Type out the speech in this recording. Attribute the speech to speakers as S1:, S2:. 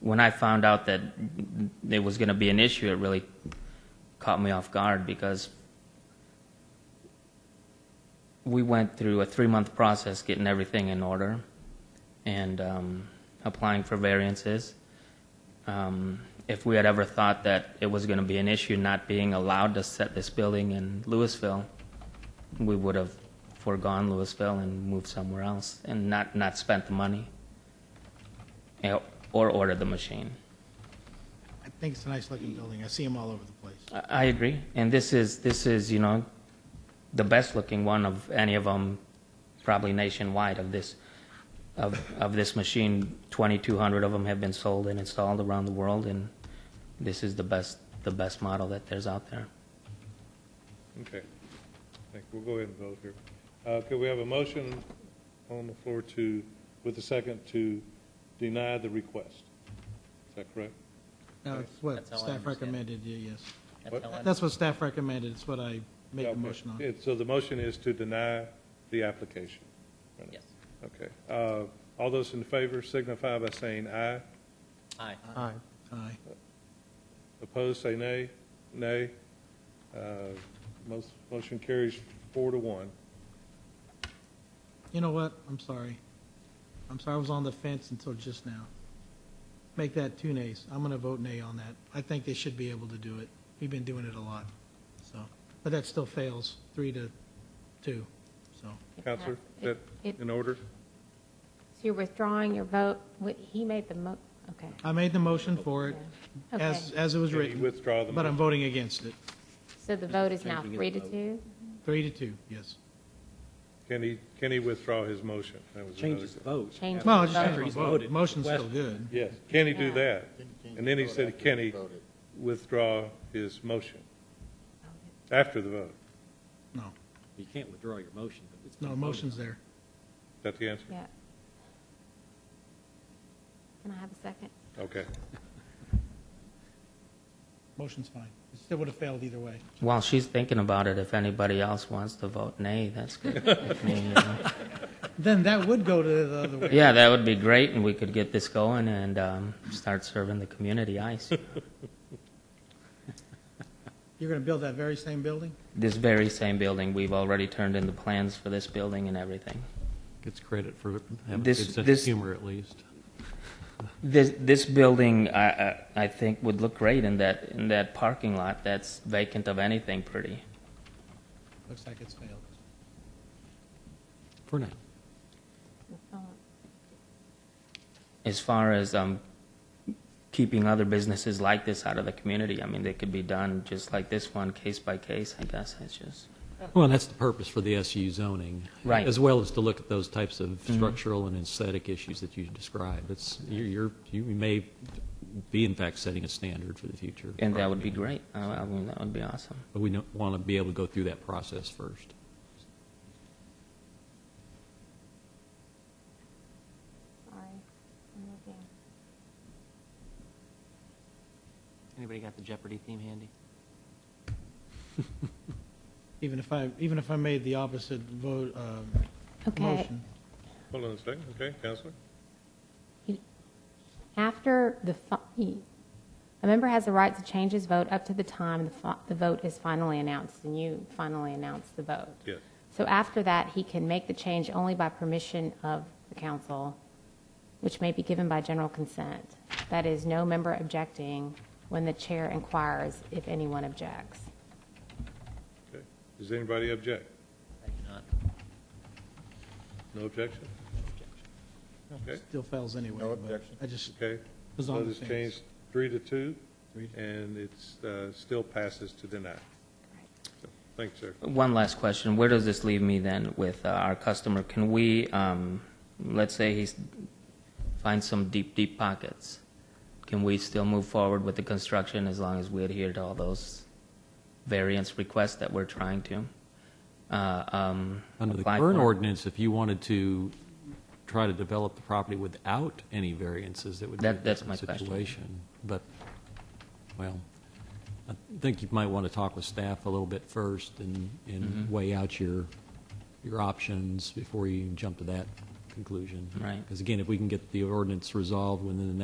S1: when I found out that it was going to be an issue, it really caught me off guard because we went through a three month process getting everything in order and um, applying for variances. Um, if we had ever thought that it was going to be an issue not being allowed to set this building in Louisville, we would have foregone Louisville and moved somewhere else and not, not spent the money eh, or ordered the machine.
S2: I think it's a nice looking building. I see them all over the place.
S1: I I agree, and this is this is you know the best looking one of any of them, probably nationwide of this of of this machine. Twenty two hundred of them have been sold and installed around the world, and this is the best the best model that there's out there.
S3: Okay. Thank, we'll go ahead and vote here. Uh, could we have a motion on the floor to, with a second, to deny the request? Is that correct?
S2: No, it's what
S4: That's how I
S2: staff
S4: understand it.
S2: recommended, yeah, yes.
S3: What?
S4: how I-
S2: That's what staff recommended, it's what I made the
S3: Okay.
S2: motion on.
S3: Yeah, So the motion is to deny the application?
S4: Yes.
S3: Okay. Uh, all those in favor signify by saying aye.
S4: Aye.
S2: Aye. Aye.
S3: Opposed, say nay. Nay. Uh, most, motion carries four to one.
S2: You know what? I'm sorry. I'm sorry, I was on the fence until just now. Make that two nays. I'm going to vote nay on that. I think they should be able to do it. We've been doing it a lot, so. But that still fails, three to two, so.
S3: Counselor, is that
S5: It- it-
S3: in order?
S5: So you're withdrawing your vote, Wait, he made the mo, okay.
S2: I made the motion for it, as,
S5: Okay,
S2: as it was
S3: Can you
S2: written,
S3: Withdraw the
S2: but I'm
S3: motion.
S2: voting against it.
S5: so the vote is now
S4: Changing his
S5: three to
S4: vote.
S5: two?
S2: Three to two, yes.
S3: Can he, can he withdraw his motion? That was
S4: Change
S3: another
S4: his
S3: good-
S4: vote.
S5: Change
S2: Well, I
S5: the
S2: just
S5: vote.
S2: changed my
S4: He's
S2: vote.
S4: voted.
S2: Motion's still good.
S3: Yes, can he do
S5: Yeah.
S3: that? And then he said, can he withdraw his motion after the vote?
S2: No,
S4: You can't withdraw your motion. but it's been
S2: no,
S4: voted
S2: motion's
S4: on.
S2: there.
S3: Is that the answer?
S5: Yeah. Can I have a second?
S3: Okay.
S2: Motion's fine. It still would have failed either way.
S1: While she's thinking about it, if anybody else wants to vote nay, that's good. with me, you know.
S2: Then that would go to the other way.
S1: Yeah, that would be great, and we could get this going and um, start serving the community ice.
S2: You're going to build that very same building?
S1: This very same building, we've already turned in the plans for this building and everything.
S6: Gets credit for having a good
S1: This-
S6: sense of
S1: this-
S6: humor, at least.
S1: This this building, I, I I think would look great in that in that parking lot that's vacant of anything pretty.
S2: Looks like it's failed.
S6: For now.
S5: Oh,
S1: As far as um, keeping other businesses like this out of the community, I mean, they could be done just like this one, case by case. I guess it's just
S6: Well, and that's the purpose for the SU zoning.
S1: Right. Mm-hmm.
S6: As well as to look at those types of structural and aesthetic issues that you described. It's, you're, you're- you may be in fact setting a standard for the future.
S1: and that would be great. I, I mean, that would be awesome.
S6: But we want to be able to go through that process first.
S5: Sorry, I'm looking.
S7: Anybody got the Jeopardy theme handy?
S2: Even if I, even if I made the opposite vote, um,
S5: Okay,
S2: motion.
S3: Hold on a second, okay, Counselor?
S5: after the, fi- e- a member has the right to change his vote up to the time the fi- the vote is finally announced, and you finally announce the vote.
S3: Yes.
S5: So after that, he can make the change only by permission of the council, which may be given by general consent. That is, no member objecting when the chair inquires if anyone objects.
S3: Okay. Does anybody object?
S4: Thank you, Not.
S3: No objection? Okay,
S2: Still fails anyway. No objection. I just
S3: okay.
S2: was
S3: So
S2: on the
S3: this
S2: fence.
S3: changed three to two,
S2: Three to-
S3: and it's, uh, still passes to deny. So, Thank you, sir.
S1: One last question. Where does this leave me then with uh, our customer? Can we, um, let's say he's finds some deep, deep pockets. Can we still move forward with the construction as long as we adhere to all those variance requests that we're trying to? uh, um,
S6: Under the
S1: apply
S6: current
S1: for?
S6: ordinance, if you wanted to try to develop the property without any variances, that would be a
S1: That- that's
S6: different
S1: my question.
S6: situation. But, well, I think you might want to talk with staff a little bit first and, and
S1: Mm-hmm.
S6: weigh out your, your options before you jump to that conclusion.
S1: Right.
S6: Because again, if we can get the ordinance resolved within the